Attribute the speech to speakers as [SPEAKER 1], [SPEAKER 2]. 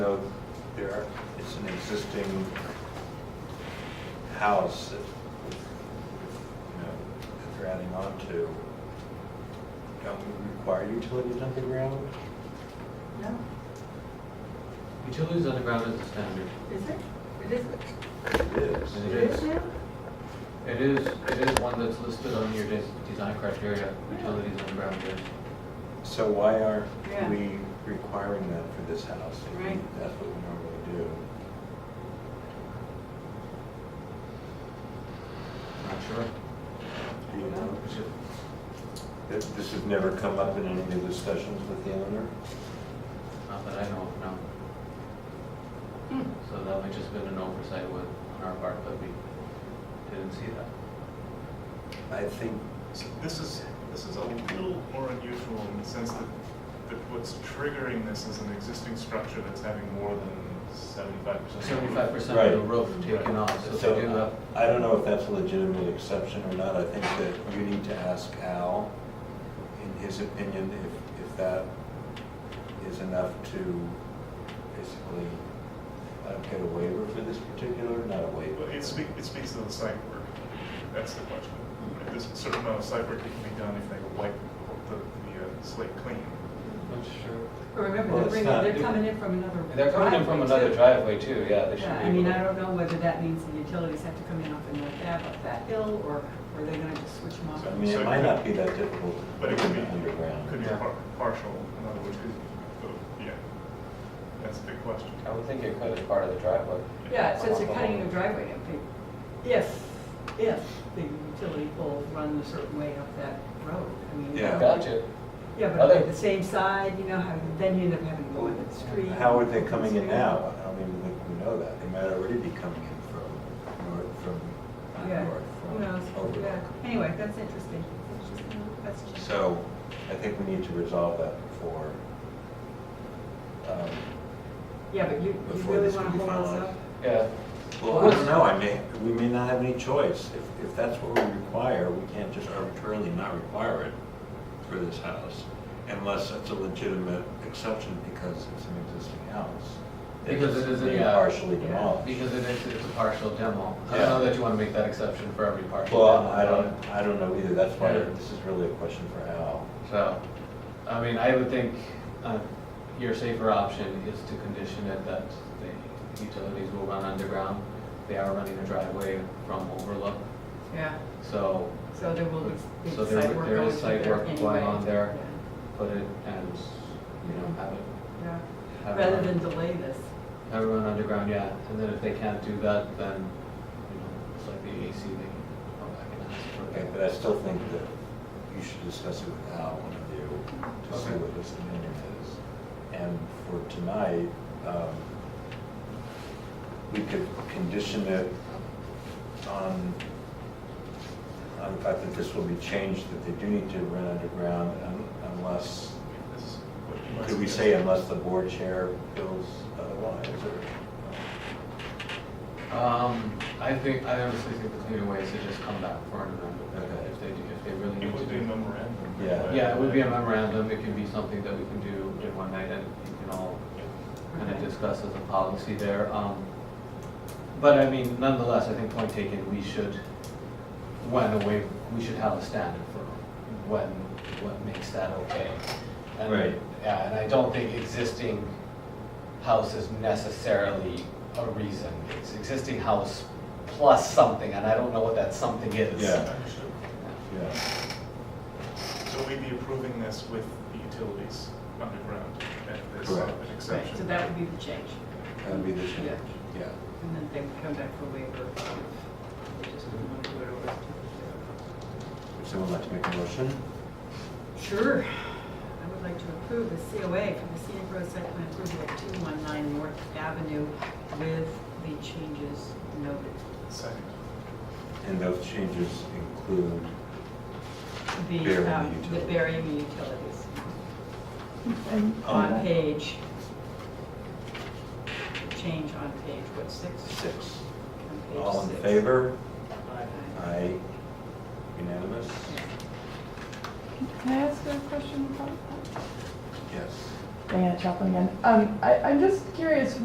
[SPEAKER 1] there, are- it's an existing house that, you know, that they're adding on to. Don't we require utilities underground?
[SPEAKER 2] No,
[SPEAKER 3] Utilities underground is a standard.
[SPEAKER 2] is it? It is,
[SPEAKER 1] It is.
[SPEAKER 3] It
[SPEAKER 2] it is
[SPEAKER 3] is.
[SPEAKER 2] now?
[SPEAKER 3] It is, it is one that's listed on your des- design criteria, utilities underground is.
[SPEAKER 1] So why aren't
[SPEAKER 2] Yeah.
[SPEAKER 1] we requiring that for this house? I think
[SPEAKER 2] Right.
[SPEAKER 1] That's what we normally do.
[SPEAKER 3] Not sure.
[SPEAKER 1] Do you know?
[SPEAKER 3] Is it-
[SPEAKER 1] Th- This has never come up in any of the discussions with the owner?
[SPEAKER 3] Not that I know of, no.
[SPEAKER 2] Hmm.
[SPEAKER 3] So that might just been an oversight with, on our part, but we didn't see that.
[SPEAKER 1] I think,
[SPEAKER 4] So This is, this is a little more unusual in the sense that, that what's triggering this is an existing structure that's having more than seventy-five percent.
[SPEAKER 3] Seventy-five percent of the
[SPEAKER 1] Right.
[SPEAKER 3] roof taken off, so
[SPEAKER 1] so, uh,
[SPEAKER 3] they do have,
[SPEAKER 1] I don't know if that's a legitimate exception or not. I think that you need to ask Al, in his opinion, if, if that is enough to basically uh, get a waiver for this particular, not a waiver.
[SPEAKER 4] Well, it speaks, it speaks to the site work, that's the question. There's a certain amount of site work that can be done if they wipe the, the uh, slate clean.
[SPEAKER 3] not sure.
[SPEAKER 2] But remember,
[SPEAKER 1] Well,
[SPEAKER 2] they're
[SPEAKER 1] it's
[SPEAKER 2] bringing,
[SPEAKER 1] not-
[SPEAKER 2] they're coming in from another.
[SPEAKER 3] They're coming in from another
[SPEAKER 2] too.
[SPEAKER 3] driveway too, yeah, they should
[SPEAKER 2] Yeah,
[SPEAKER 3] be.
[SPEAKER 2] I mean,
[SPEAKER 3] able to-
[SPEAKER 2] I don't know whether that means the utilities have to come in off the North Ave up that hill, or are they gonna just switch them off?
[SPEAKER 1] I mean, it might not be that difficult
[SPEAKER 4] But
[SPEAKER 1] to
[SPEAKER 4] it could be, could
[SPEAKER 1] underground.
[SPEAKER 4] be
[SPEAKER 3] Yeah.
[SPEAKER 4] par- partial, in other words, it- uh, yeah, that's a big question.
[SPEAKER 3] I would think it could as part of the driveway.
[SPEAKER 2] Yeah, since you're cutting a driveway, I think, if, if the utility pole runs a certain way up that road, I mean.
[SPEAKER 1] Yeah.
[SPEAKER 3] Gotcha.
[SPEAKER 2] Yeah, but
[SPEAKER 3] Other-
[SPEAKER 2] on the same side, you know, how, then you end up having to go in the street.
[SPEAKER 1] How are they coming in now? I don't even think we know that. They might already be coming in from north, from, not
[SPEAKER 2] Yeah,
[SPEAKER 1] north,
[SPEAKER 2] who
[SPEAKER 1] from
[SPEAKER 2] knows, yeah,
[SPEAKER 1] Overlook.
[SPEAKER 2] anyway, that's interesting, That's an interesting little question.
[SPEAKER 1] So I think we need to resolve that before, um,
[SPEAKER 2] Yeah, but you, you
[SPEAKER 1] before
[SPEAKER 2] really
[SPEAKER 1] this
[SPEAKER 2] wanna
[SPEAKER 1] can be
[SPEAKER 2] hold us
[SPEAKER 1] finalized.
[SPEAKER 2] up?
[SPEAKER 3] Yeah.
[SPEAKER 1] Well, I don't know, I may, we may not have any choice. If, if that's what we require, we can't just arbitrarily not require it for this house unless it's a legitimate exception because it's an existing house.
[SPEAKER 3] Because it is a-
[SPEAKER 1] Being
[SPEAKER 3] yeah.
[SPEAKER 1] Partially
[SPEAKER 2] Yeah.
[SPEAKER 1] demolished.
[SPEAKER 3] Because it is, it's a partial demo. I
[SPEAKER 1] Yeah.
[SPEAKER 3] don't know that you want to make that exception for every partial demo.
[SPEAKER 1] Well, I don't, I don't know either, that's why
[SPEAKER 3] Yeah.
[SPEAKER 1] this is really a question for Al.
[SPEAKER 3] So, I mean, I would think uh, your safer option is to condition it that the utilities will run underground. They are running a driveway from overlook,
[SPEAKER 2] Yeah,
[SPEAKER 3] so
[SPEAKER 2] so there will be be
[SPEAKER 3] So
[SPEAKER 2] site
[SPEAKER 3] there
[SPEAKER 2] work going
[SPEAKER 3] would-
[SPEAKER 2] through there anyway.
[SPEAKER 3] there is site work going on there. put it and, you know, have it,
[SPEAKER 2] Yeah, yeah.
[SPEAKER 3] Have
[SPEAKER 2] rather
[SPEAKER 3] it
[SPEAKER 2] than
[SPEAKER 3] on.
[SPEAKER 2] delay this,
[SPEAKER 3] have it run underground, yeah. And then if they can't do that, then, you know, it's like the AC, they can go back and ask for
[SPEAKER 1] Okay, but I still think that you should discuss it with Al, one of you, to see what his opinion is. And for tonight, um, we could condition it on, on the fact that this will be changed, that they do need to run underground un- unless,
[SPEAKER 4] This is what you might
[SPEAKER 1] could we
[SPEAKER 4] suggest.
[SPEAKER 1] say unless the board chair feels otherwise, or? uh,
[SPEAKER 3] Um, I think, I honestly think the cleaner way is to just come back for an amendment,
[SPEAKER 1] Okay.
[SPEAKER 3] if they, do- if they really
[SPEAKER 4] It
[SPEAKER 3] need to
[SPEAKER 4] would be a
[SPEAKER 3] do.
[SPEAKER 4] memorandum.
[SPEAKER 1] Yeah.
[SPEAKER 3] Yeah, it would be a memorandum, it can be something that we can do in one night, and you can all kind of
[SPEAKER 2] Okay.
[SPEAKER 3] discuss as a policy there. Um, But I mean, nonetheless, I think point taken, we should, when a waiver, we should have a standard for when, what makes that okay. And-
[SPEAKER 1] Right.
[SPEAKER 3] Yeah, and I don't think existing house is necessarily a reason. It's existing house plus something, and I don't know what that something is.
[SPEAKER 1] Yeah.
[SPEAKER 4] Understood.
[SPEAKER 1] Yeah.
[SPEAKER 4] So we'd be approving this with the utilities underground, and there's
[SPEAKER 1] Correct.
[SPEAKER 4] an
[SPEAKER 2] right, so
[SPEAKER 4] exception.
[SPEAKER 2] that would be the change,
[SPEAKER 1] That would be the change, yeah.
[SPEAKER 2] and then they would come back for waiver, if they just wouldn't wanna do it over.
[SPEAKER 1] Would someone like to make a motion?
[SPEAKER 2] Sure, I would like to approve the COA for the scenic road site plan approval at 219 North Avenue with the changes noted.
[SPEAKER 4] Second.
[SPEAKER 1] And those changes include, Burying
[SPEAKER 2] The,
[SPEAKER 1] the
[SPEAKER 2] um, the
[SPEAKER 1] utilities. Oh.
[SPEAKER 2] burying the utilities
[SPEAKER 1] And
[SPEAKER 2] on
[SPEAKER 1] on-
[SPEAKER 2] page, change on page, what, six?
[SPEAKER 1] six.
[SPEAKER 2] On page
[SPEAKER 1] All in
[SPEAKER 2] six.
[SPEAKER 1] favor?
[SPEAKER 2] Aye.
[SPEAKER 1] Aye. Unanimous?
[SPEAKER 5] Can I ask a question about that?
[SPEAKER 1] Yes.
[SPEAKER 5] Diana Chaplin again. Um, I, I'm just curious,